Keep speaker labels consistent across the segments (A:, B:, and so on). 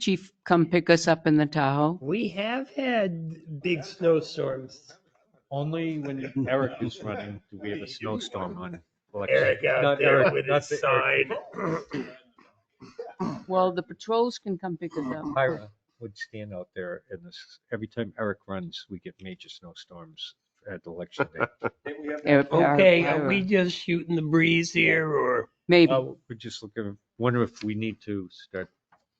A: chief come pick us up in the Tahoe?
B: We have had big snowstorms.
C: Only when Eric is running do we have a snowstorm on. election.
B: Eric out
C: Not
B: there
C: Eric,
B: with
C: not
B: his
C: the Eric,
B: sign.
A: Well, the patrols can come pick us up.
C: Myra would stand out there and this, every time Eric runs, we get major snowsstorms at election day.
A: Eric,
B: Okay,
A: Eric,
B: are we just shooting the breeze here or?
A: Maybe.
C: Well, We're Uh, just looking, wonder if we need to start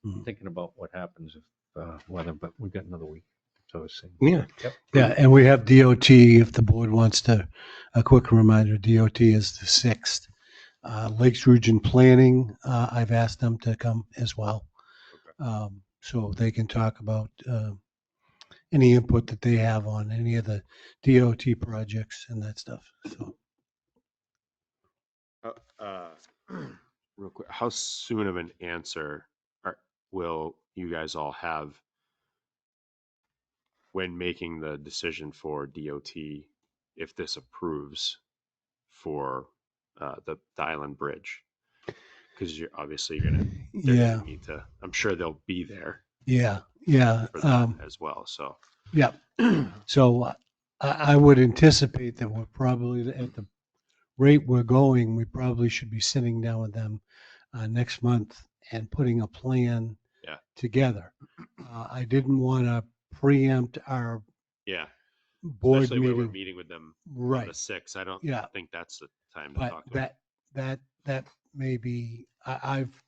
D: Hmm.
C: thinking about what happens if uh, weather, but we've got another week. So it's.
D: Yeah.
C: Yep.
D: Yeah, and we have DOT, if the board wants to, a quick reminder, DOT is the 6th. Uh, Lakes Region Planning, uh, I've asked them to come as well. Um, So they can talk about uh, any input that they have on any of the DOT projects and that stuff, so.
E: Uh, uh, Real quick, how soon of an answer are, will you guys all have when making the decision for DOT if this approves for uh, the, the Island Bridge? Because you're obviously you're gonna, they're
D: Yeah,
E: gonna need to. I'm sure they'll be there
D: yeah, yeah.
E: for that
D: um,
E: as well. So
D: Yeah. So I, I would anticipate that we're probably, at the rate we're going, we probably should be sitting down with them uh, next month and putting a plan
E: Yeah.
D: together. Uh, I didn't want to preempt our
E: yeah,
D: board
E: especially when we're
D: meeting.
E: meeting with them on the
D: Right,
E: six. I don't
D: Yeah.
E: think that's the time to
D: but
E: talk. to them.
D: that, that, that may be, I, I've,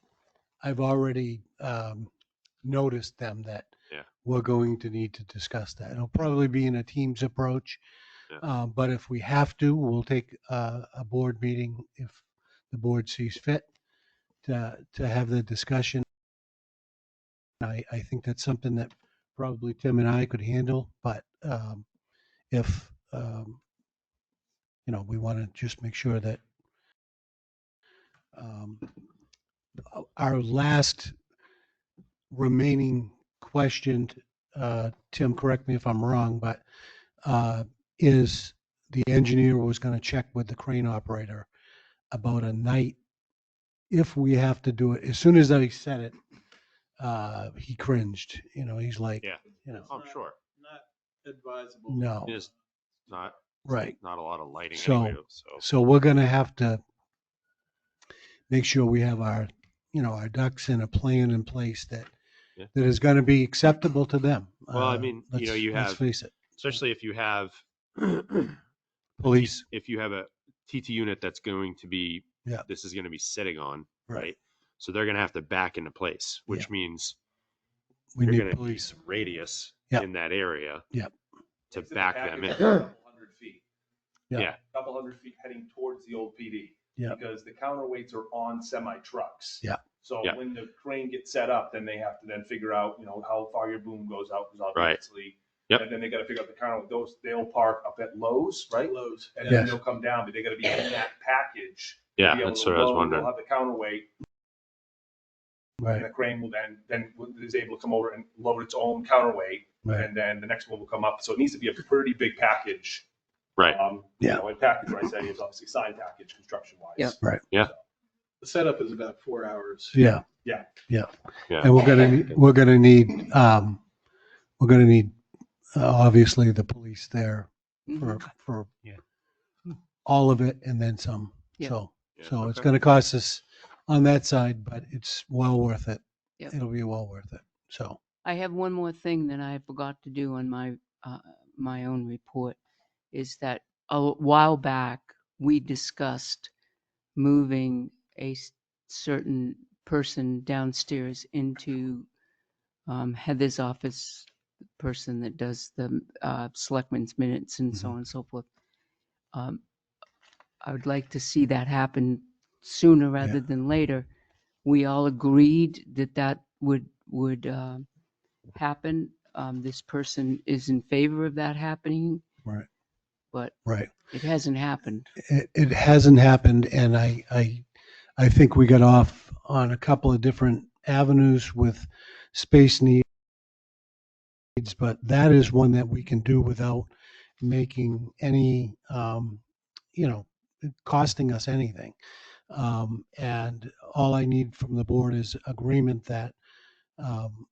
D: I've already um, noticed them that
E: Yeah.
D: we're going to need to discuss that. It'll probably be in a team's approach.
E: Yeah.
D: Uh, But if we have to, we'll take a, a board meeting if the board sees fit to, to have the discussion. I, I think that's something that probably Tim and I could handle, but um, if, um, you know, we want to just make sure that um, our last remaining question, uh, Tim, correct me if I'm wrong, but uh, is the engineer was going to check with the crane operator about a night. If we have to do it, as soon as I said it, uh, he cringed, you know, he's like,
E: Yeah.
D: you know,
E: I'm Oh, sure
D: no,
E: it's not
D: right.
E: not a lot of lighting
D: So-
E: anyway. So
D: So we're going to have to make sure we have our, you know, our ducks in a plan in place that,
E: Yeah.
D: that is going to be acceptable to them.
E: Well, I
D: Uh,
E: mean, you know,
D: let's-
E: you
D: Let's
E: have-
D: face it,
E: especially if you have
D: police,
E: if you have a TT unit that's going to be
D: Yeah.
E: this is going to be sitting on right,
D: Right.
E: so they're going to have to back into place, which means
D: we
E: you're
D: need
E: going to need
D: police.
E: some radius
D: Yeah.
E: in that area
D: Yeah.
E: to back them in.
F: Hundred feet.
D: Yeah.
E: Yeah.
F: Couple hundred feet heading towards the old PD.
D: Yeah.
F: Because the counterweights are on semi trucks.
D: Yeah.
F: So
E: Yeah.
F: when the crane gets set up, then they have to then figure out, you know, how far your boom goes out, because
E: Right.
F: obviously.
E: Yep.
F: And then they gotta figure out the counter, those, they'll park up at Lowe's, right? Lowe's. And then
D: Yes.
F: they'll come down, but they gotta be in that package. to
E: Yeah,
F: be able
E: that's
F: to
E: what I was
F: load.
E: wondering.
F: They'll have the counterweight, and
D: Right,
F: the crane will then, then is able to come over and load its own counterweight,
D: right.
F: and then the next one will come up. So it needs to be a pretty big package.
E: Right.
F: Um, you
D: Yeah.
F: know, And package, what I say, is obviously sign package, construction wise.
A: Yep.
F: The setup is about four hours.
D: Yeah.
F: Yeah.
D: Yeah.
E: Yeah.
D: And we're gonna, we're gonna need, um, we're gonna need, uh, obviously, the police there
A: Mm-hmm.
B: Uh,
D: for, for
C: Yeah.
D: all of it and then some.
A: Yeah.
D: So,
E: Yeah,
D: so it's
E: okay.
D: gonna cost us on that side, but it's well worth it.
A: Yeah.
D: It'll be well worth it. So,
A: I have one more thing that I forgot to do on my, uh, my own report, is that a while back, we discussed moving a s- certain person downstairs into um, Heather's office, the person that does the uh, selectmen's minutes and so on and so forth. Um, I would like to see that happen sooner rather than later. We all agreed that that would, would um, happen. Um, this person is in favor of that happening,
D: right,
A: but
D: right.
A: it hasn't happened.
D: It, it hasn't happened and I, I, I think we got off on a couple of different avenues with space needs. But that is one that we can do without making any, um, you know, costing us anything. Um, and all I need from the board is agreement that, um,